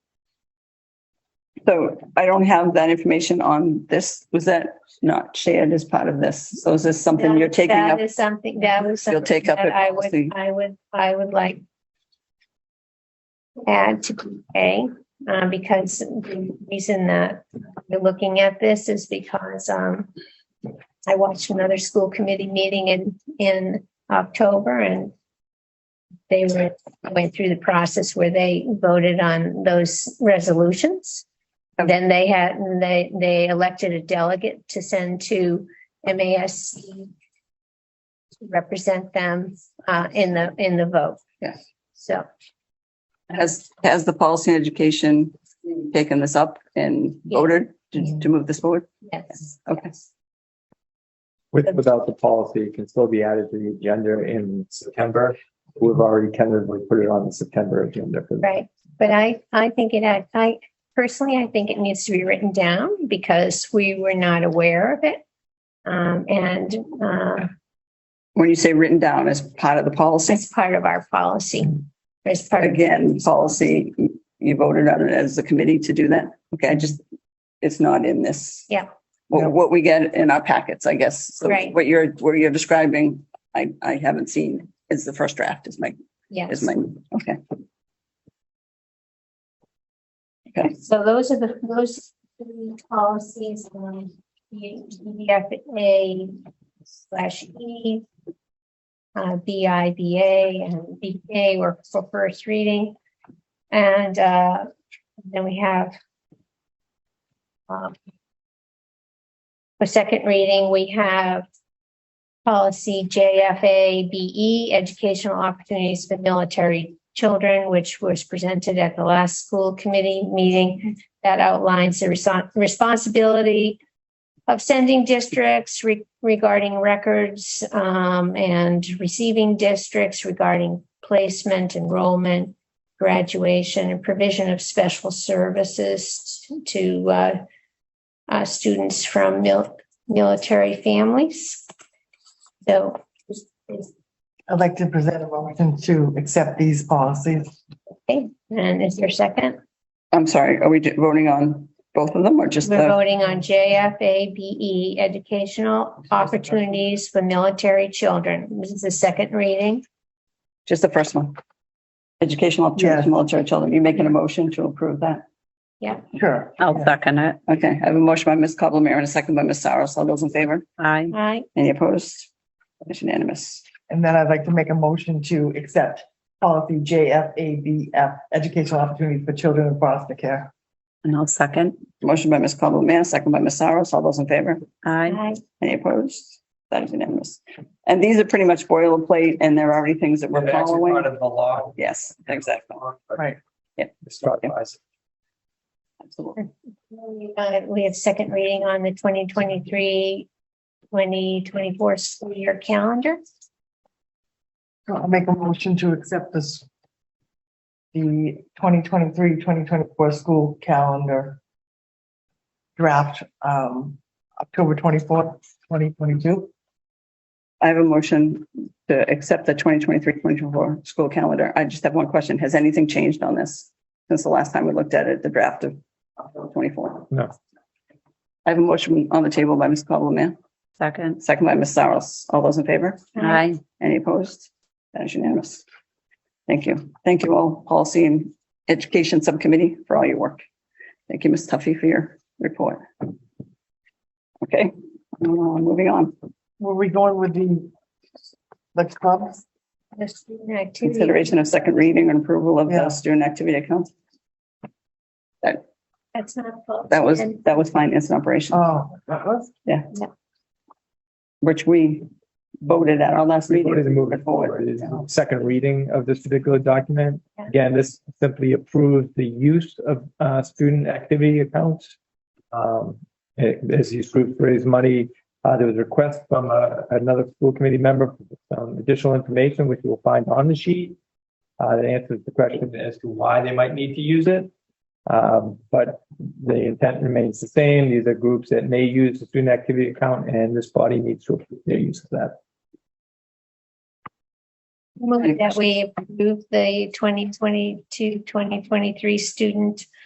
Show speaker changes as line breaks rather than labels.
So I don't have that information on this. Was that not shared as part of this? So is this something you're taking
That
up?
is something, that was.
You'll take
something
up
that
at
I would,
policy.
I would, I would like. Add to PA, um, because the reason that we're looking at this is because, um. I watched another school committee meeting in, in October and. They were, went through the process where they voted on those resolutions.
Okay.
Then they had, they, they elected a delegate to send to MASC represent them uh in the in the vote.
Yes.
So
Has, has the policy and education taken this up and voted to, to move this forward?
yes.
Okay.
With, without the policy, it can still be added to the agenda in September. We've already tentatively put it on the September agenda. for-
Right, but I I think it had, I personally, I think it needs to be written down because we were not aware of it. Um and uh
When you say written down as part of the policy,
as part of our policy, as part of
again, policy, you voted on it as a committee to do that? Okay, I just, it's not in this.
Yeah.
What, what we get in our packets, I guess. So
Right.
What you're, what you're describing, I, I haven't seen. It's the first draft is my, is
yes.
my, okay.
So those are the those three policies on EDFA slash E. uh, BIBA and BK were for first reading. And, uh, then we have, um, for second reading, we have policy JFA BE, E, educational opportunities for military children, which was presented at the last school committee meeting that outlines the reso- responsibility of sending districts re- regarding records um, and receiving districts regarding placement, enrollment, graduation, and provision of special services to uh, uh, students from mil- military families. So,
I'd like to present a motion to accept these policies.
okay, and is there a second?
I'm sorry, are we do- voting on both of them or just
We're
the?
voting on JFABE, E, Educational Opportunities for Military Children. This is the second reading.
Just the first one. Educational opportunities for military children. You making a motion to approve that?
Sure.
I'll second it.
Okay, I have a motion by Ms. Cobblemire and a second by Ms. Saros. All those in favor?
Aye.
Aye.
Any opposed? It's unanimous.
And then I'd like to make a motion to accept policy JFABF, educational opportunities for children in foster care.
And I'll second.
Motion by Ms. Cobblemire, second by Ms. Saros. All those in favor?
Aye.
Aye.
Any opposed? That is unanimous. And these are pretty much boilerplate and there are already things that we're
That's
following.
Part of the law.
Yes, exactly.
Right.
It's not advised.
Absolutely.
Uh, We have second reading on the 2023, 2024 school year calendar.
So I'll make a motion to accept this, the 2023-2024 school calendar draft, um, October twenty-fourth, twenty twenty-two.
I have a motion to accept the 2023-2024 school calendar. I just have one question. Has anything changed on this? Since the last time we looked at it, the draft of twenty-four?
No.
I have a motion on the table by Ms. Cobbleman,
Second.
second by Ms. Saros. All those in favor?
Aye.
Any opposed? That is unanimous. Thank you. Thank you all, Policy and Education Subcommittee, for all your work. Thank you, Ms. Tuffy, for your report. Okay, uh, moving on.
Were we going with the, the clubs?
The student activity,
Consideration of second reading and approval of
Yeah.
the student activity accounts.
that's not. full.
That was,
And
that was finance and operations,
Oh, that was?
which we voted at our last
We
meeting.
voted to move it
Put forward.
forward. It is the Second reading of this particular document.
Yeah.
Again, this simply approves the use of uh, student activity accounts. Um, it- As these groups raise money, uh, there was a request from uh, another school committee member for some additional information, which you will find on the sheet. uh, That answers the question as to why they might need to use it. Um, But the intent remains the same. These are groups that may use the student activity account, and this body needs to approve their use of that.
move That we approve the 2022, 2023 student